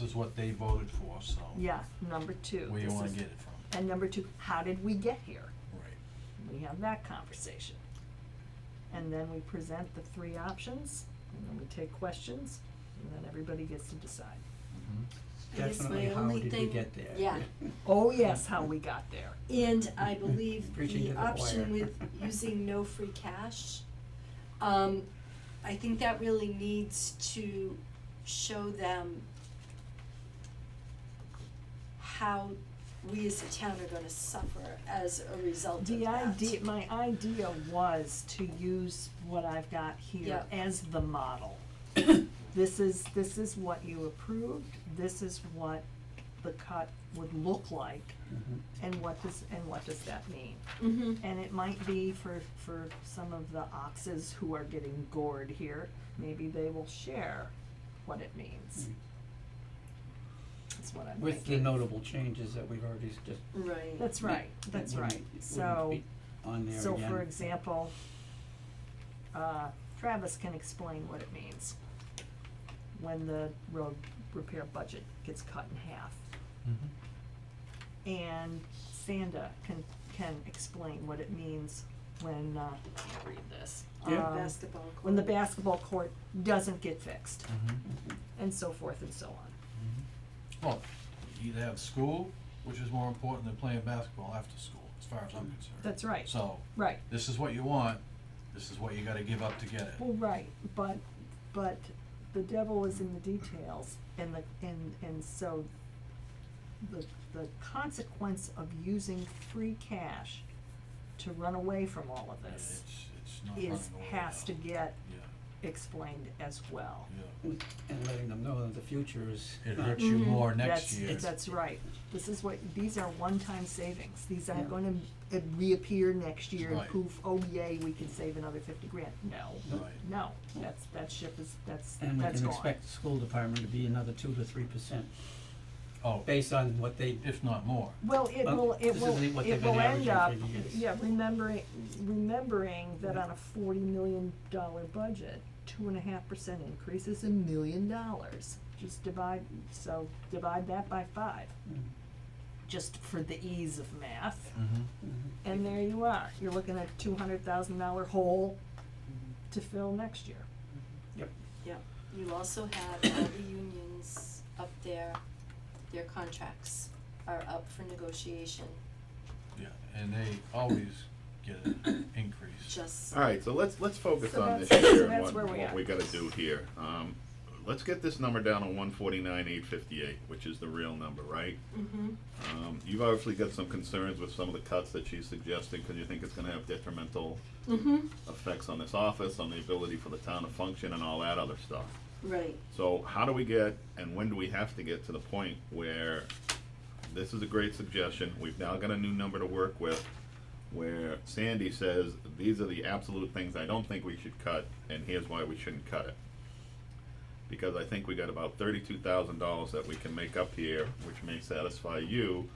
This is what they voted for, so. Yeah, number two. Where you this wanna is- get it from, And number two, how did we get here? right. We have that conversation. And then we present the three options, and then we take questions, and then everybody gets to decide. Mm-hmm. I guess my Definitely, how only did we thing- get there? Yeah, Oh, yes, how we got there. and I believe Preaching to the the option choir. with using no free cash, um, I think that really needs to show them how we as a town are gonna suffer as a result of that. The idea, my idea was to use what I've got here Yeah. as the model. This is, this is what you approved, this is what the cut would look like, Mhm. and what does, and what does that mean? Mm-hmm, And it might be for, for some of the oxes who are getting gored here, maybe they will share what it means. That's what I'm Hmm. Mm-hmm. With the thinking. notable changes that we've already s- just. right. That's right, that's wouldn't- right. wouldn't So, be On there again. so for example, uh, Travis can explain what it means when the road repair budget gets cut in half. Mm-hmm. And Sanda can, can explain what it means when, uh, I can't read this. Yeah. Um, Basketball court. when the basketball court doesn't get fixed, Mm-hmm. and so forth and so on. Well, you either have school, which is more important than playing basketball after school, as far as I'm concerned. That's right, So, right, this is what you want, this is what you gotta give up to get it. well, right, but, but the devil is in the details, and the, and, and so the, the consequence of using free cash to run away from all of Yeah, this It's, it's not running away is, has now. to get Yeah, explained as well. yeah. And letting them know that the future is. uh, It Mm, not- hurts you Mhm. more next year. Mm-hmm. That's, that's right. This is what, these are one-time savings. These Yeah. aren't gonna uh, reappear next year and Right. poof, oh yay, we can save another fifty grand. No, Right. no, that's, that ship is, that's, And we that's can gone. expect the school department to be another two to three percent, Oh, based on what they, if not more. Well, it Um, will, it this will, isn't what it they've been will end averaging up, for years. yeah, remembering, remembering that on a forty million dollar budget, two and a half percent increase is a million dollars. Just divide, so divide that by five, Mhm. just for the ease of math. Mm-hmm. Mhm. And there you are, you're looking at two hundred thousand dollar hole to fill next year. yep, Yeah, you also have all the unions up there, their contracts are up for negotiation, Yeah, and they always get an increase. just. Uh, Alright, so let's, let's focus So on that's- this so year that's and what, where we are. what we gotta do here. Um, let's get this number down to one forty-nine, eight fifty-eight, which is the real number, right? Mm-hmm. Um, you've obviously got some concerns with some of the cuts that she's suggesting, cause you think it's gonna have detrimental Mm-hmm, effects on this office, on the ability for the town to function and all that other stuff. right. So how do we get, and when do we have to get to the point where this is a great suggestion, we've now got a new number to work with, where Sandy says, these are the absolute things I don't think we should cut, and here's why we shouldn't cut it. Because I think we got about thirty-two thousand dollars that we can make up here, which may satisfy you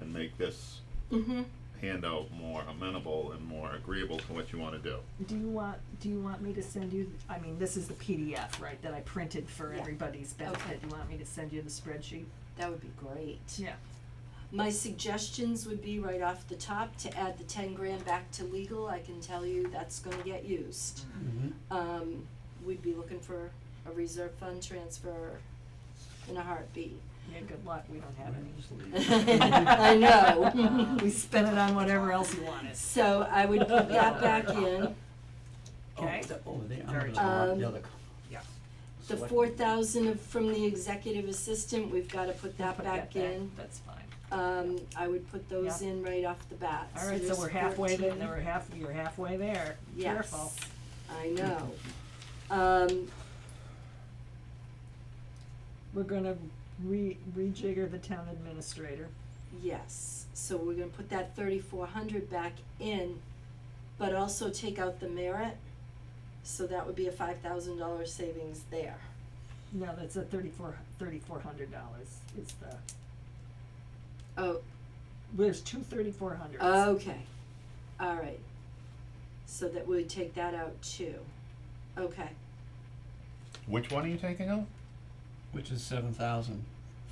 and make this Mm-hmm. handout more amenable and more agreeable to what you wanna do. Do you want, do you want me to send you, I mean, this is the PDF, right, that I printed for Yeah. everybody's benefit, Okay. you want me to send you the spreadsheet? That would be great. Yeah. My suggestions would be right off the top to add the ten grand back to legal, I can tell you that's gonna get used. mhm, Um, we'd be looking for a reserve fund transfer in a heartbeat. Yeah, good luck, we Mm-hmm. don't have any. Just leave. I know. We spent it on whatever else you wanted. So I would put that back in, Oh, Okay. the- Oh, they, I'm Very gonna mark Um, the other. co- yeah. the Select- four thousand of, from the executive assistant, we've gotta put that Put back in. That's fine. Um, I would put those Yeah. in right off the bat. All right, so there's we're halfway there, 14. now we're half, you're halfway there, careful. Yes, I know. Um, We're gonna re, rejigger the town administrator. yes, so we're gonna put that thirty-four hundred back in, but also take out the merit. So that would be a five thousand dollar savings there. No, that's a thirty-four, thirty-four hundred dollars is the, Oh, there's two thirty-four hundreds. okay, all right. So that we would take that out too. Okay, Which one are you taking out? Which is seven thousand.